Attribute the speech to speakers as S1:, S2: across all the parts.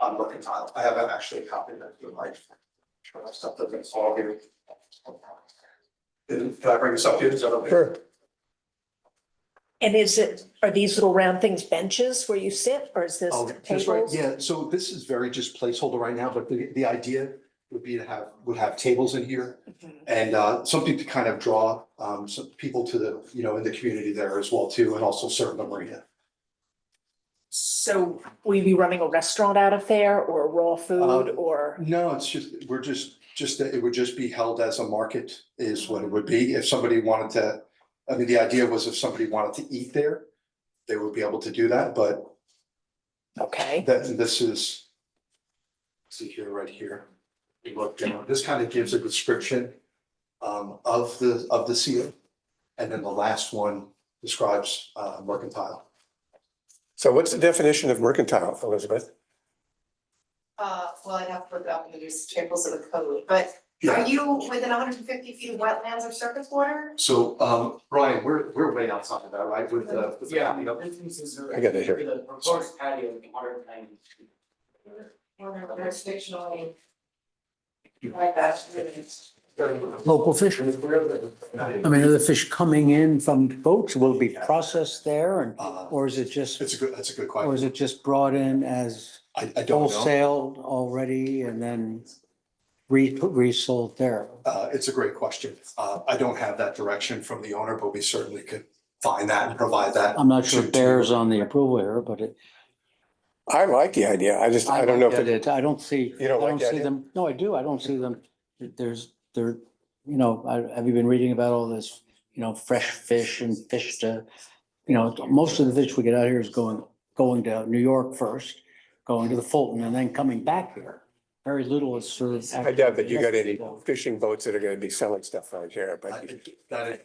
S1: um, reconciled. I have actually a copy that you might. Sure, that's stuff that it's all here. Did did I bring this up here? Is that okay?
S2: Sure.
S3: And is it, are these little round things benches where you sit or is this
S1: Oh, just right,
S3: tables?
S1: yeah, so this is very just placeholder right now, but the, the idea would be to have, would have tables in here.
S3: Mhm.
S1: And uh, something to kind of draw um some people to the, you know, in the community there as well too, and also serve the marina.
S3: So will you be running a restaurant out of there or raw food
S1: Um,
S3: or?
S1: No, it's just, we're just, just that it would just be held as a market is what it would be. If somebody wanted to, I mean, the idea was if somebody wanted to eat there, they would be able to do that, but
S3: Okay,
S1: that, this is see here, right here. We look down, this kind of gives a description um of the, of the seal. And then the last one describes uh mercantile.
S2: So what's the definition of mercantile, Elizabeth?
S4: Uh, well, I'd have to look up and use tables of the code, but are you within hundred and fifty feet of wetlands or surface water?
S1: So, um, Brian, we're, we're way outside of that, right, with the. with the-
S5: Yeah, the entrances are.
S2: I gotta hear it.
S5: The proposed patio, the modern kind.
S4: Or jurisdictionally? Like that, really.
S6: Local fish. I mean, are the fish coming in from boats will be processed there and,
S1: Uh,
S6: or is it just,
S1: It's a good, that's a good
S6: or is
S1: question.
S6: it just brought in as
S1: I, I don't know.
S6: wholesale already and then re, resold there?
S1: Uh, it's a great question. Uh, I don't have that direction from the owner, but we certainly could find that and provide that.
S6: I'm not sure
S1: to-
S6: it
S1: to-
S6: bears on the approval here, but it.
S2: I like the idea. I just, I don't know if
S6: like
S2: it,
S6: it. I don't see.
S2: You don't
S6: I
S2: like the
S6: see
S2: idea?
S6: them. No, I do. I don't see them. There's, there, you know, I, have you been reading about all this, you know, fresh fish and fish to, you know, most of the fish we get out here is going, going to New York first, going to the Fulton and then coming back here. Very little is served.
S2: I doubt that you got any fishing boats that are gonna be selling stuff out here,
S1: I
S2: but
S1: think That, is-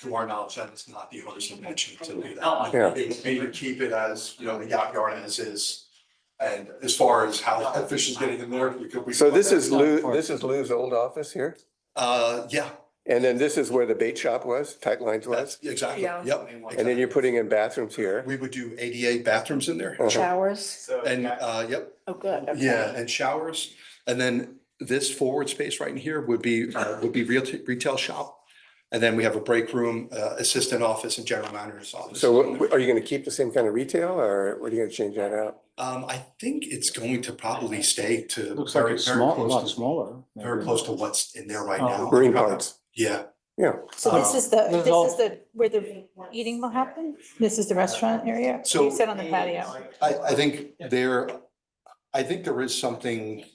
S1: to our knowledge, that is not the owner's intention to do
S2: Yeah.
S1: that. They Maybe keep it as, you know, the yacht yard as is. And as far as how that fish is getting in there, we could. we
S2: So
S1: could-
S2: this is Lou, this is Lou's old office here,
S1: Uh, yeah,
S2: and then this is where the bait shop was, tight lines was.
S1: that's exactly,
S3: Yeah.
S1: yep.
S2: And then
S1: exactly.
S2: you're putting in bathrooms here.
S1: We would do ADA bathrooms in there.
S2: Uh-huh.
S3: showers?
S5: So.
S1: And,
S5: that-
S1: uh, yep,
S3: Oh, good. okay.
S1: Yeah, and showers. And then this forward space right in here would be, uh, would be real retail shop. And then we have a break room, uh, assistant office and general manager's office.
S2: So what- are you gonna keep the same kind of retail or what are you gonna change that out?
S1: Um, I think it's going to probably stay to
S6: Looks like
S1: very, very
S6: it's small, a lot
S1: close to,
S6: smaller.
S1: very close to what's in there right
S6: Oh.
S1: now.
S2: Marine parts.
S1: Yeah,
S7: So this is the,
S6: Um, There's
S7: this
S6: all-
S7: is the, where the eating will happen? This is the restaurant area?
S1: So-
S7: You said on the patio.
S1: I, I think there, I think there is something.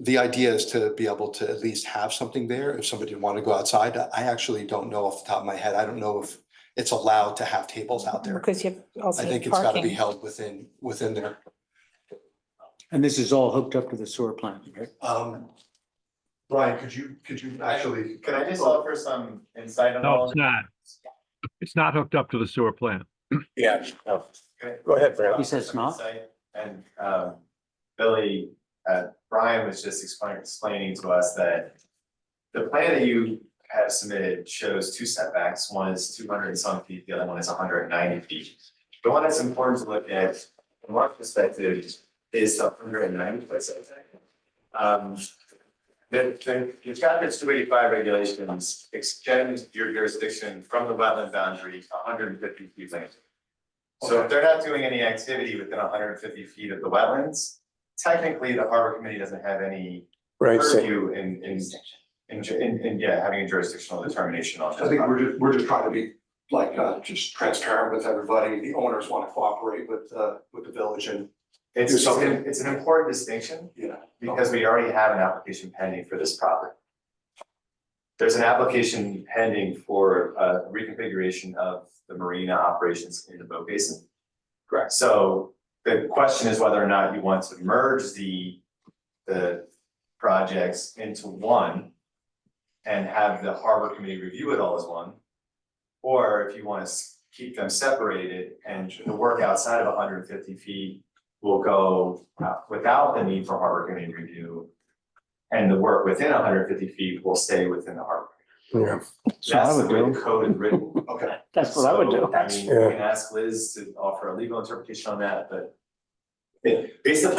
S1: The idea is to be able to at least have something there if somebody wanted to go outside. I actually don't know off the top of my head. I don't know if it's allowed to have tables out there.
S7: Because you have also
S1: I think it's gotta be
S7: parking.
S1: held within, within there.
S6: And this is all hooked up to the sewer plant, right?
S1: Um, Brian, could you, could you actually?
S5: Can I just offer some insight on
S8: No,
S5: all?
S8: it's not. It's not hooked up to the sewer plant.
S2: Yeah.
S5: Okay.
S2: Go ahead, Brad.
S6: He says not.
S5: Insight. And um Billy, uh Brian was just explaining explaining to us that. The plan that you have submitted shows two setbacks, one is two hundred and some feet, the other one is hundred and ninety feet. The one that's important to look at, from our perspective, is the hundred and ninety foot setback. Um, the, the, the chapter two eighty-five regulations extend your jurisdiction from the wetland boundary hundred and fifty feet land. So if they're not doing any activity within hundred and fifty feet of the wetlands, technically the harbor committee doesn't have any
S2: Right, so,
S5: purview in, in, in, ju- in, in, yeah, having a jurisdictional determination on this.
S1: I think we're just, we're just trying to be like, uh, just transparent with everybody. The owners want to cooperate with, uh, with the village and,
S5: It's, it's an, it's an important distinction
S1: you know.
S5: because we already have an application pending for this property. There's an application pending for uh reconfiguration of the marina operations in the boat basin. Correct. So the question is whether or not you want to merge the the projects into one and have the harbor committee review it all as one. Or if you want to keep them separated and the work outside of hundred and fifty feet will go uh, without the need for harbor committee review. And the work within hundred fifty feet will stay within the harbor.
S2: yeah.
S6: So I
S5: That's the
S6: would
S5: way the
S6: do.
S5: code is written.
S1: Okay.
S6: That's what I would
S5: So,
S6: do.
S5: I mean, you
S2: Yeah.
S5: can ask Liz to offer a legal interpretation on that, but it- based upon